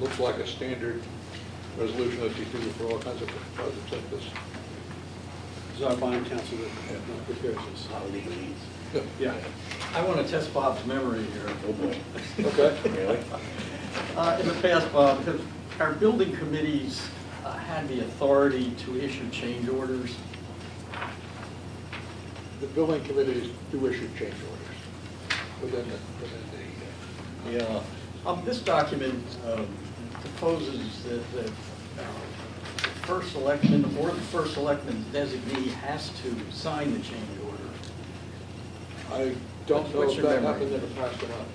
looks like a standard resolution that you do for all kinds of projects like this. It's our bond council that prepares this. Not legally. Yeah. I want to test Bob's memory here. Oh, boy. Okay. Really? Uh, In the past, Bob, have our building committees uh, had the authority to issue change orders? The building committees do issue change orders within the, within the. uh, Yeah. Um, This document um, proposes that that, uh, the first selection or the first selectman's designee has to sign the change order. I don't know What's if your that memory? happened in the past or not.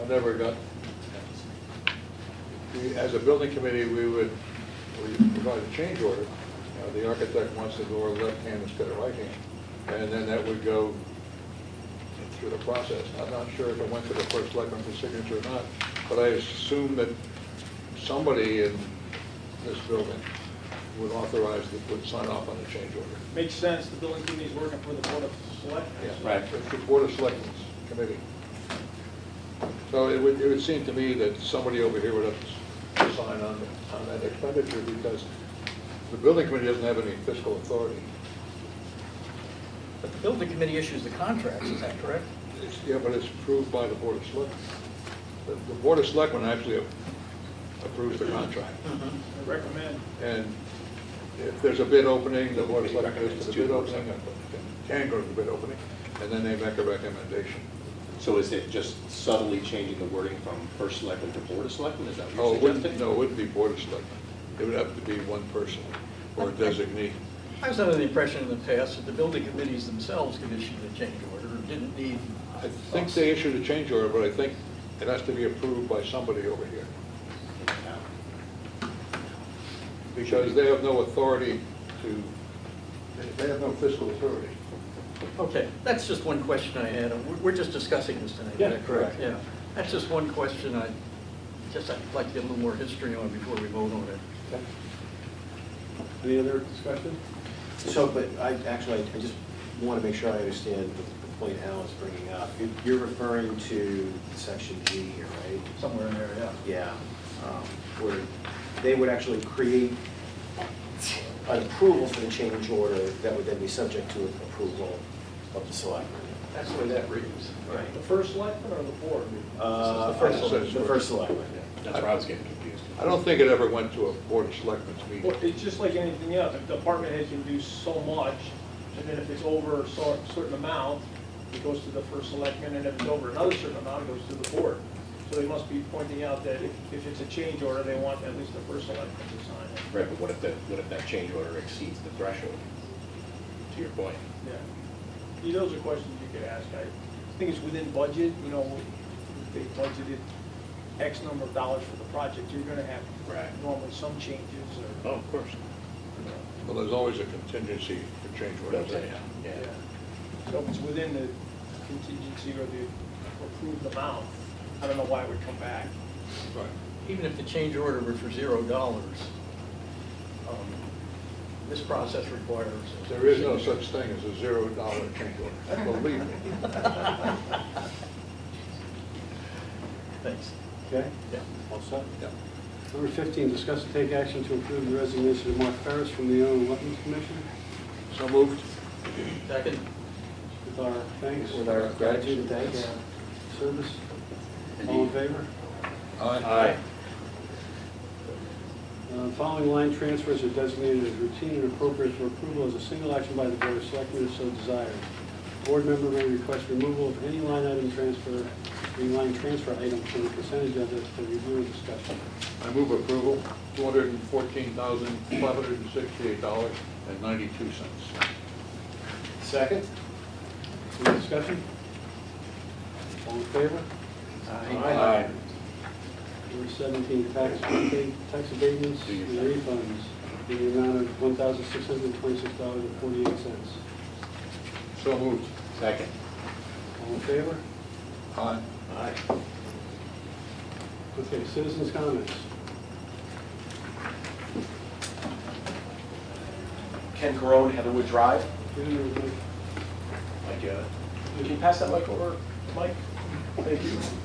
I never got, we- as a building committee, we would, we provide a change order. Uh, The architect wants to go left hand instead of right hand, and then that would go through the process. I'm not sure if it went to the first selectman for signature or not, but I assume that somebody in this building would authorize, that would sign off on the change order. Makes sense, the building committee's working for the Board of Selectmen. Yeah, Right. It's the Board of Selectmen's committee. So it would, it would seem to me that somebody over here would have to s- sign on, on that expenditure because the building committee doesn't have any fiscal authority. But the building committee issues the contracts, is that correct? It's, yeah, but it's approved by the Board of Selectmen. The, the Board of Selectmen actually approves the contract. I recommend. And if there's a bid opening, the Board of Selectmen goes to the bid opening, and can go to the bid opening, and then they make a recommendation. So is it just subtly changing the wording from first selectman to board of selectmen? Is that Oh, what it you're wouldn't, suggesting? no, it wouldn't be Board of Selectmen. It would have to be one person or a designee. I was under the impression in the past that the building committees themselves could issue the change order and didn't need. I think they issued a change order, but I think it has to be approved by somebody over here. Because they have no authority to, they- they have no fiscal authority. Okay, that's just one question I had. We're- We're just discussing this tonight. Yeah, correct. Yeah, that's just one question I, just I'd like to get a little more history on before we vote on it. Any other discussion? So, but I, actually, I just want to make sure I understand the the point Alan's bringing up. You- You're referring to section G here, right? Somewhere in there, yeah. Yeah, um, where they would actually create an approval for the change order that would then be subject to approval of the selectmen. That's the way that reads. Right. The first selectman or the board? Uh, This is the first The selectmen. first selectmen. That's where I was getting confused. I don't think it ever went to a Board of Selectmen's meeting. Well, It's just like anything else, the department head can do so much, and then if it's over a cer- certain amount, it goes to the first selectman, and if it's over another certain amount, it goes to the board. So they must be pointing out that if if it's a change order, they want at least the first selectman to sign it. Right, but what if the, what if that change order exceeds the threshold, to your point? Yeah. You- Those are questions you could ask. I think it's within budget, you know, they budgeted X number of dollars for the project. You're gonna have Right. normally some changes Oh, or, of course. you know, Well, there's always a contingency for change orders. Yeah. yeah. So if it's within the contingency or the approved amount, I don't know why it would come back. Right. Even if the change order were for zero dollars, um, this process requires. There is no such thing as a zero dollar change order, believe me. Thanks. Okay, Yeah. all set. Yeah. Number 15, discuss and take action to approve the resignation of Mark Ferris from the Inland Wetlands Commission So moved. Second? with our thanks. With our gratitude and thanks. Service. All in favor? Aye. Uh, Following line transfers are designated as routine and appropriate for approval as a single action by the Board of Selectmen if so desired. Board member may request removal of any line item transfer, any line transfer item from the consent agenda for review and discussion. I move approval, two hundred and fourteen thousand, five hundred and sixty-eight dollars and ninety-two cents. Second? Any discussion? All in favor? Aye. Number 17, tax tax abatements and refunds in the amount of $1,626.48. So moved. Second. All in favor? Aye. Okay, citizens' comments. Ken Corone, Heatherwood Drive. Mr. Can you pass that mic over, Mike? Thank you.